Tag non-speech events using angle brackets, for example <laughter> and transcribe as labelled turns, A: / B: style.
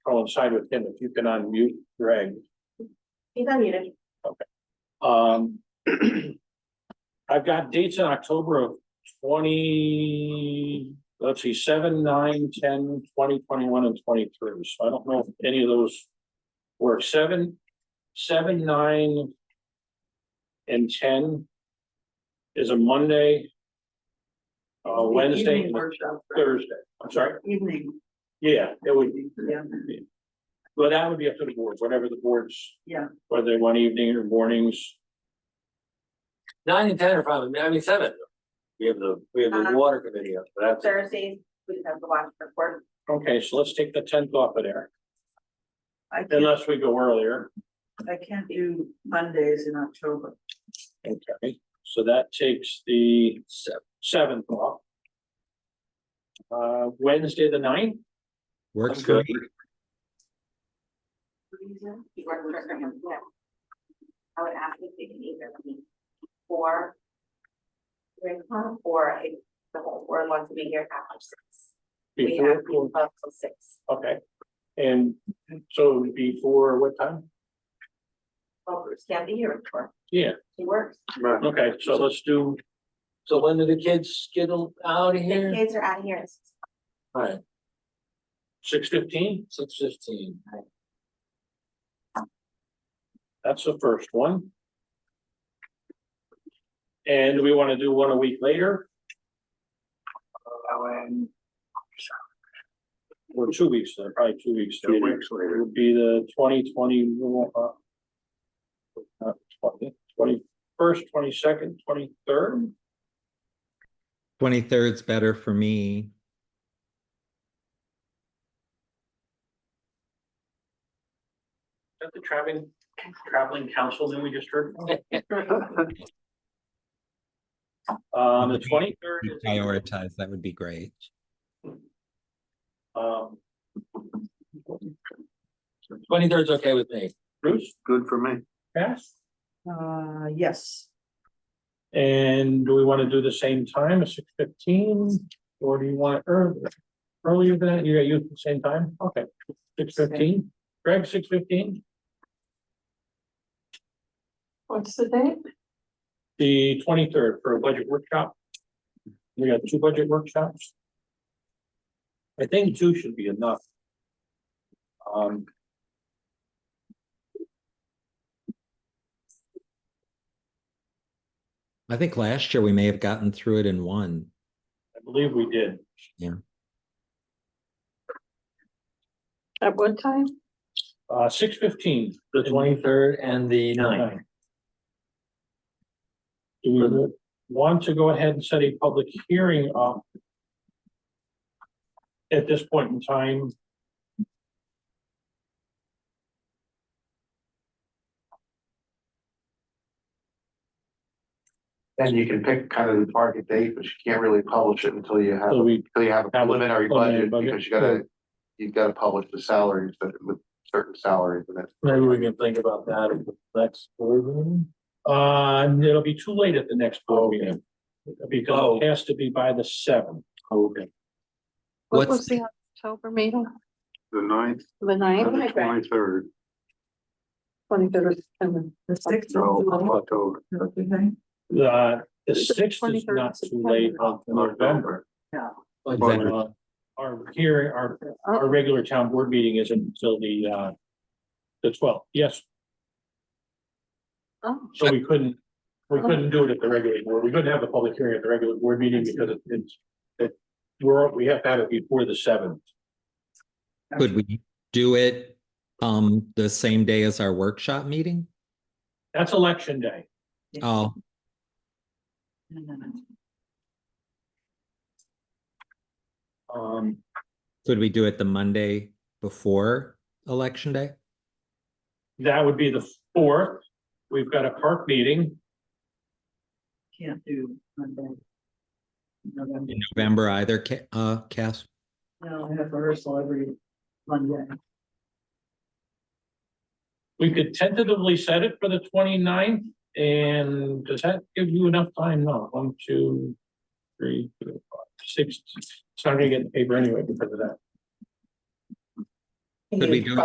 A: coincide with him, if you can unmute Greg.
B: He's unmuted.
A: Um. <clears throat> I've got dates in October of twenty, let's see, seven, nine, ten, twenty, twenty-one and twenty-three, so I don't know if any of those. Work seven, seven, nine. And ten. Is a Monday. Uh, Wednesday,
B: Evening
A: and
B: workshop, right?
A: Thursday, I'm sorry,
B: Evening,
A: yeah, it would,
B: yeah,
A: but that would be up to the board, whatever the board's,
B: yeah.
A: whether they want evening or mornings.
C: Nine and ten are probably, I mean, seven. We have the, we have the
B: Uh-huh.
C: water committee up, but that's,
B: Thursdays, we have the watch report.
A: Okay, so let's take the tenth off of there,
D: I can't,
A: unless we go earlier.
D: I can't do Mondays in October.
A: Okay, so that takes the seventh off. Uh, Wednesday, the ninth,
E: Works
C: I'm
E: good.
C: good.
B: He worked for him, yeah. I would ask if they can either be four. Three o'clock, or if the whole world wants to be here after six. We have
A: before,
B: people up till six,
A: okay. And so before what time?
B: well, Bruce can't be here before,
A: Yeah,
B: he works.
A: okay, so let's do,
C: Uh, so when do the kids get out of
B: The
C: here?
B: kids are out of here, at six.
C: Alright,
A: six fifteen,
C: six fifteen.
A: that's the first one. And do we want to do one a week later? Or two weeks, later, probably two weeks. later. It would be the twenty twenty. Not twenty, twenty first, twenty second, twenty third,
E: Twenty-third's better for me.
A: that the traveling, traveling council that we just heard? from? Um, the twenty third
E: You
A: is,
E: Prioritize, that would be great.
A: um,
C: Twenty-third's okay with me.
A: Bruce,
F: Good for me.
A: Cass?
D: Uh, yes,
A: And do we want to do the same time, six fifteen, or do you want it earlier? Earlier than, that? you got you at the same time, okay, six fifteen, Greg, six fifteen,
B: What's the date?
A: the twenty third for a budget workshop. We got two budget workshops. I think two should be enough. Um.
E: I think last year we may have gotten through it in one.
A: I believe we did.
E: Yeah.
A: At what time? Uh, six fifteen.
C: The twenty-third and the ninth.
A: Do we want to go ahead and set a public hearing up? At this point in time?
F: Then you can pick kind of the target date, but you can't really publish it until you have,
A: So we,
F: until you have a
A: Have a
F: preliminary
A: preliminary
F: budget,
A: budget.
F: because you gotta, you've gotta publish the salaries that with certain salaries and that's.
C: Maybe we can think about that at the next board meeting.
A: uh, it'll be too late at the next board meeting. Because
C: Oh.
A: it has to be by the seventh.
C: Okay.
G: What
E: What's
G: was the October meeting,
F: The ninth,
G: the ninth,
B: the
F: twenty-third,
G: twenty-third, and
D: the sixth of July,
F: October,
D: okay,
A: The, the sixth is
G: 23rd
A: not too late of November.
E: Exactly.
A: Uh, Our hearing, our, our regular town board meeting isn't until the, uh, the twelfth, yes,
G: oh,
A: so we couldn't, we couldn't do it at the regular board, we couldn't have the public hearing at the regular board meeting because it- it's, it, we're, we have to have it before the seventh.
E: Could we do it um the same day as our workshop meeting?
A: That's election day,
E: Oh,
D: No, no, no.
A: um,
E: could we do it the Monday before election day?
A: that would be the fourth, we've got a park meeting,
D: can't do Monday. November,
E: In November either, Ca- uh, Cass?
D: no, I have rehearsal every Monday,
A: we could tentatively set it for the 29th. and does that give you enough time, no, one, two, three, four, five, six, it's not gonna get in the paper anyway because of that.
E: Could we do it